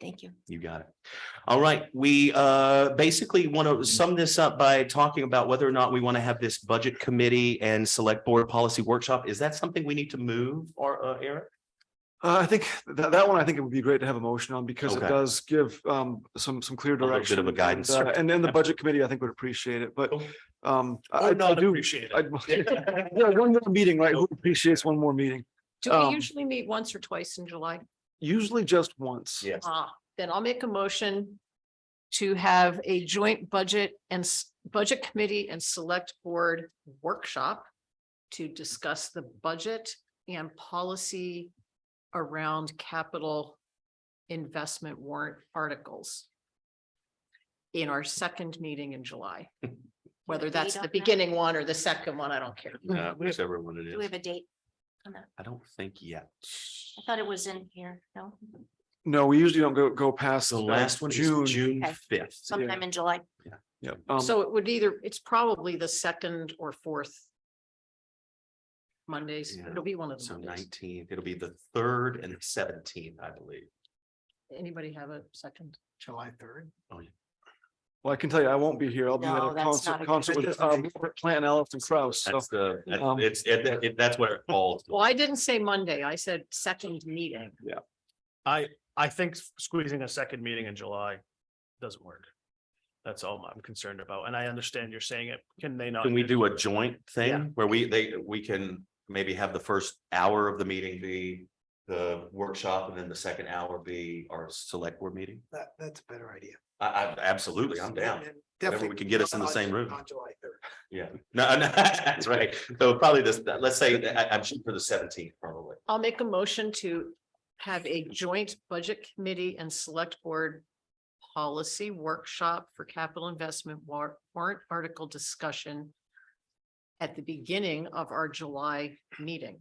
Thank you. You got it. All right, we uh basically want to sum this up by talking about whether or not we want to have this budget committee and select board policy workshop. Is that something we need to move or uh Eric? Uh, I think that, that one, I think it would be great to have a motion on because it Okay. does give um some some clear little bit direction. of a guidance, and, uh, sure. And then the budget committee, I think would appreciate it, but Cool. um. I- Or I not do- appreciate I- Yeah, one more meeting, right? Who appreciates one more meeting? Do Um, we usually meet once or twice in July? Usually just once. Yes. Um, Ah, then I'll make a motion to have a joint budget and s- budget committee and select board workshop to discuss the budget and policy around capital investment warrant articles in our second meeting in July. Whether date that's on the that? beginning one or the second one, I don't care. Yeah, whichever one it Do we is. have a date? I don't think yet. I thought it was in here. No, No, we usually don't go go past. The uh, last one June. is June Okay. fifth. sometime in July. Yeah. Um, So it would either, it's probably the second or fourth. Mondays, Yeah. it'll be one of So them. nineteenth, it'll be the third and seventeenth, I believe. Anybody have a second? July third. well, I can tell you, I won't be here. I'll be at No, a that's not a concert, good concert with uh, Plant Elephant Kraus. So That's the, that's- Um, it's, it- it- that's what it falls. Well, I didn't say Monday. I said second meeting. I think s- squeezing a second meeting in July doesn't work. That's all I'm concerned about, and I understand you're saying it, can they not? Can we do a joint thing where we, they, we can maybe have the first hour of the meeting be the workshop and then the second hour be our select board meeting? That, that's a better idea. I, I absolutely, I'm down. And Whatever Definitely. we can get us in the on- same room. On July third. Yeah, no, no, that's right. So probably this, let's say, that I, I'm shooting for the seventeenth probably. I'll make a motion to have a joint budget committee and select board. Policy workshop for capital investment war- warrant article discussion. At the beginning of our July meeting.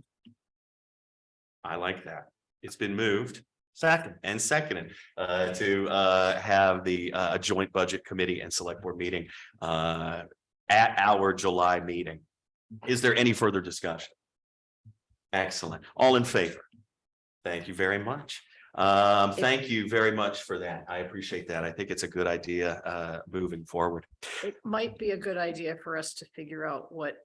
I like that. It's been moved Second. and seconded uh to uh have the uh joint budget committee and select board meeting uh at our July meeting. Is there any further discussion? Excellent. All in favor? Thank you very much. Um, thank you very much for that. I appreciate that. I think it's a good idea uh moving forward. It might be a good idea for us to figure out what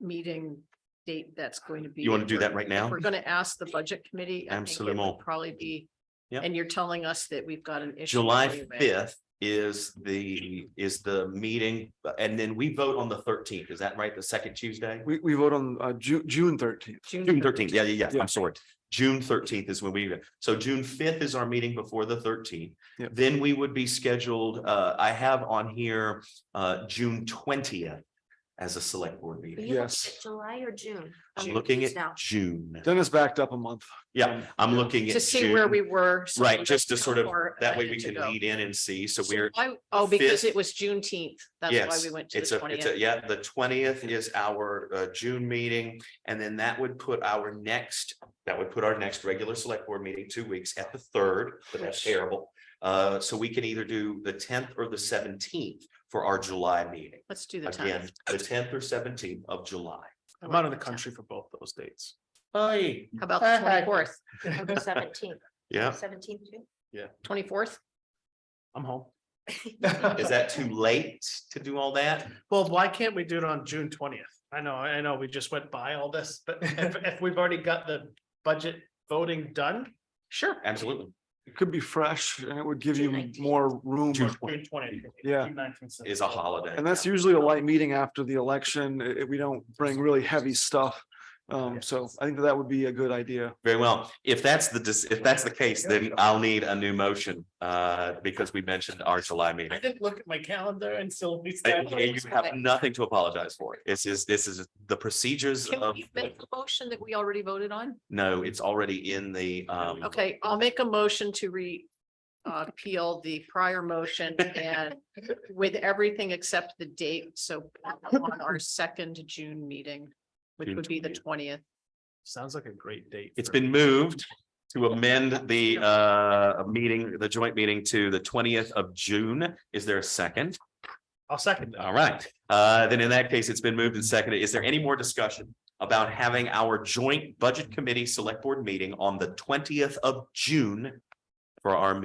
meeting date that's going to be. You want to do that right now? We're going to ask the budget committee. I think it would Absolument. Probably be. Yep. And you're telling us that we've got an issue. July anyway. fifth is the is the meeting, and then we vote on the thirteenth. Is that right? The second Tuesday? we we vote on uh Ju- June thirteenth. June thirteenth, yeah, yeah, yeah, Yeah. I'm sorry. June thirteenth is when we, so June fifth is our meeting before the thirteenth. Yeah. Then we would be scheduled, uh, I have on here, uh, June twentieth as a select board Are you meeting. looking Yes. at July or June? I'm June looking is at now. June. Dennis backed up a month. Yeah, I'm looking at To see where June. we were. so Right, we just to know sort of, how far that way we ahead to can go. lead in and see. So So we're, why- Oh, because fifth- it was Juneteenth. That's why Yes, we went to it's the a, it's twentieth. a, yeah, the twentieth is our uh June meeting, and then that would put our next, that would put our next regular select board meeting two weeks at the third, but that's terrible. Uh, so we can either do the tenth or the seventeenth for our July meeting. Let's do the Again, time. the tenth or seventeenth of July. I'm out of the country Uh, for both those dates. Aye. How about the twenty-fourth, Seventeenth, Yeah, seventeenth too. twenty-fourth? I'm home. is that too late to do all that? Well, why can't we do it on June twentieth? I know, I know, we just went by all this, but if, if we've already got the budget voting done, Sure. Absolutely. It could be fresh and it would give June you 19th. more room. June twentieth. Yeah. Is a holiday. And that's usually a light meeting after the election. I- I- we don't bring really heavy stuff. Um, so I think that that would be a good idea. Very well. If that's the, dis- if that's the case, then I'll need a new motion, uh, because we mentioned our July meeting. I didn't look at my calendar until we And started. and you have nothing to apologize for. This is, this is the procedures Can of, we make the motion that we already voted on? no, it's already in the, um, Okay, I'll make a motion to re. Uh, appeal the prior motion and with everything except the date, so on our second June meeting. Which June would be the 20th. twentieth. Sounds like a great date. it's for- been moved to amend the, uh, meeting, the joint meeting to the twentieth of June. Is there a second? I'll second that. All right. Uh, then in that case, it's been moved and seconded. Is there any more discussion about having our joint budget committee select board meeting on the twentieth of June for our